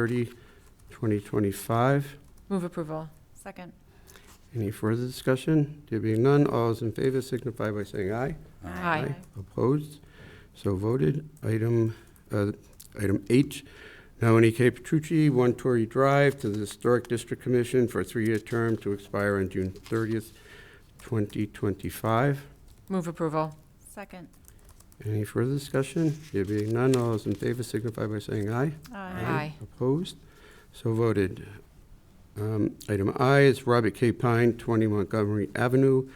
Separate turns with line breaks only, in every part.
30, 2025.
Move approval.
Second.
Any further discussion? There being none, all those in favor signify by saying aye.
Aye.
Opposed? So voted. Item, uh, item H, nominee Kay E Petrucci, 1 Torrey Drive, to the Historic District Commission for a three-year term to expire on June 30th, 2025.
Move approval.
Second.
Any further discussion? There being none, all those in favor signify by saying aye.
Aye.
Opposed? So voted. Um, Item I is Robert K. Pine, 20 Montgomery Avenue,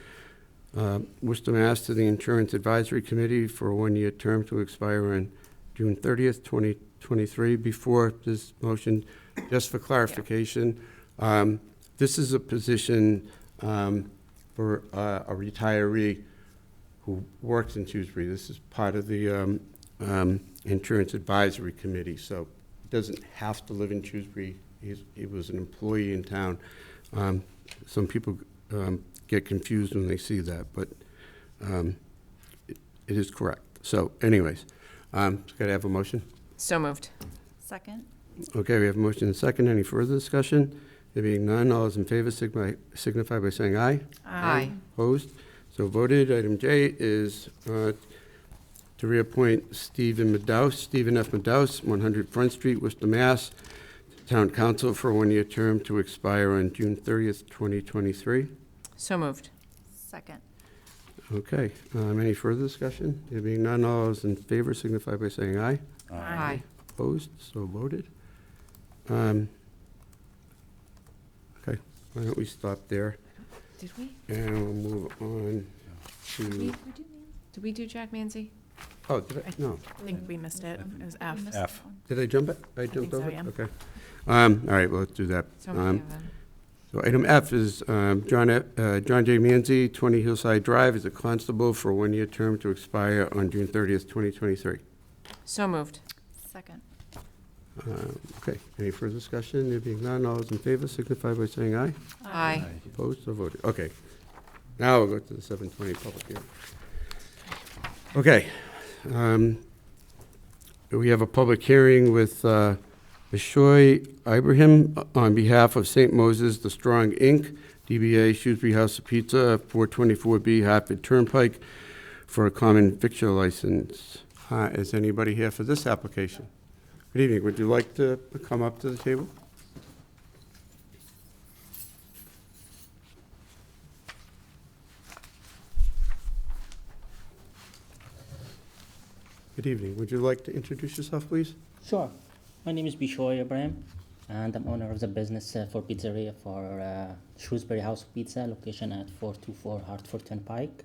uh, Worcester, Mass. to the Insurance Advisory Committee for a one-year term to expire on June 30th, 2023. Before this motion, just for clarification, um, this is a position um, for uh, a retiree who works in Tewksbury. This is part of the um, um, Insurance Advisory Committee, so doesn't have to live in Shrewsbury. He's, he was an employee in town. Um, some people, um, get confused when they see that, but, um, it it is correct. So anyways, um, gotta have a motion.
So moved.
Second.
Okay, we have a motion and a second. Any further discussion? There being none, all those in favor signify, signify by saying aye.
Aye.
Opposed? So voted. Item J is uh, to reappoint Stephen Madaus, Stephen F. Madaus, 100 Front Street, Worcester, Mass., to Town Council for a one-year term to expire on June 30th, 2023.
So moved.
Second.
Okay, um, any further discussion? There being none, all those in favor signify by saying aye.
Aye.
Opposed? So voted. Um, Okay, why don't we stop there,
Did we?
and we'll move on
We-
to,
we do- Did we do Jack Manzi?
oh, did I, no.
I
think we missed it. It was F.
We missed
F.
that one.
Did I jump it? I
think
jumped
so,
over it?
yeah.
Okay. Um, all right, well, let's do that.
So many
Um,
of them.
so item F is, um, John, F- uh, John J. Manzi, twenty Hillside Drive, is a constable for a one-year term to expire on June thirtieth, twenty twenty-three.
So moved.
Second.
Uh, okay, any further discussion? There being none, all those in favor signify by saying aye.
Aye.
Opposed or voted? Okay. Now we'll go to the seven twenty public hearing. Okay. um, We have a public hearing with uh, Bishoy Ibrahim on behalf of St. Moses The Strong Inc., DBA Shrewsbury House of Pizza, 424B Hartford Turnpike, for a common victual license. Uh, Is anybody here for this application? Good evening. Would you like to come up to the table? Good evening. Would you like to introduce yourself, please?
Sure. My name is Bishoy Ibrahim, and I'm owner of the business uh, for pizzeria for uh, Shrewsbury House Pizza, location at 424 Hartford Turnpike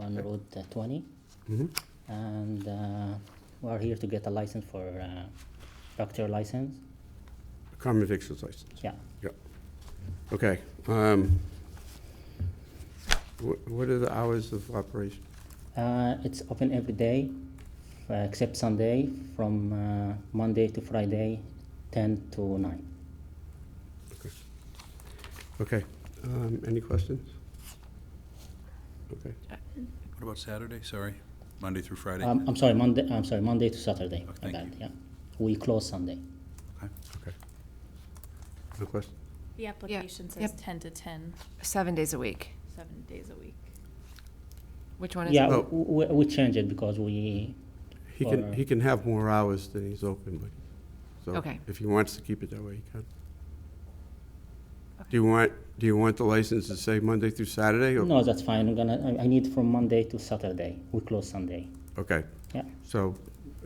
on Road uh, 20.
Mhm.
And uh, we are here to get a license for uh, doctor license.
Common victuals license.
Yeah.
Okay. um, wh- What are the hours of operation?
Uh, it's open every day uh, except Sunday from uh, Monday to Friday, 10 to 9.
Okay. um, Any questions? Okay.
What about Saturday, sorry? Monday through Friday?
Um, I'm sorry, Monday. I'm sorry, Monday to Saturday.
Oh,
My
thank
bad,
you.
Yeah. We close Sunday.
No question?
The application says
Yep.
10 to 10,
Seven days a week.
seven days a week.
Which one is
Yeah,
it?
Oh.
w- we, we change it because we,
He can,
Or-
he can have more hours than he's open, but, so,
Okay.
if he wants to keep it that way, he can.
Okay.
Do you want, do you want the license to say Monday through Saturday? or-
no, that's fine, I'm gonna, I- I need from Monday to Saturday, we close Sunday.
Okay.
Yeah.
So,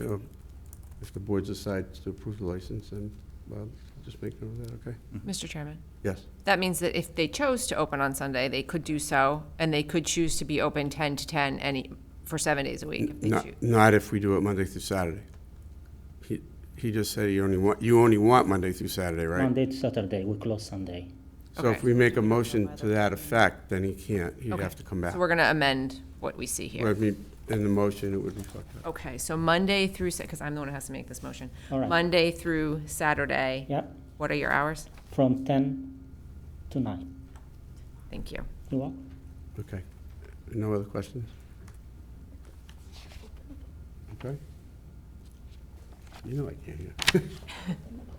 uh, if the board decides to approve the license, then, well, just make note of that, okay?
Mr. Chairman.
Yes.
That means that if they chose to open on Sunday, they could do so, and they could choose to be open 10 to 10 any, for seven days a week if they
Not-
choose.
Not if we do it Monday through Saturday. He, he just said you only want, you only want Monday through Saturday, right?
Monday to Saturday, we close Sunday.
So if
Okay.
we make a motion to that effect, then he can't, he'd have to come back.
So we're going to amend what we see
Well,
here.
I mean, in the motion, it would reflect that.
Okay, so Monday through, because I'm the one who has to make this motion.
All right.
Monday through Saturday.
Yeah,
What are your hours?
from ten to nine,
Thank you.
you want?
Okay. No other questions? Okay. You know I can't hear.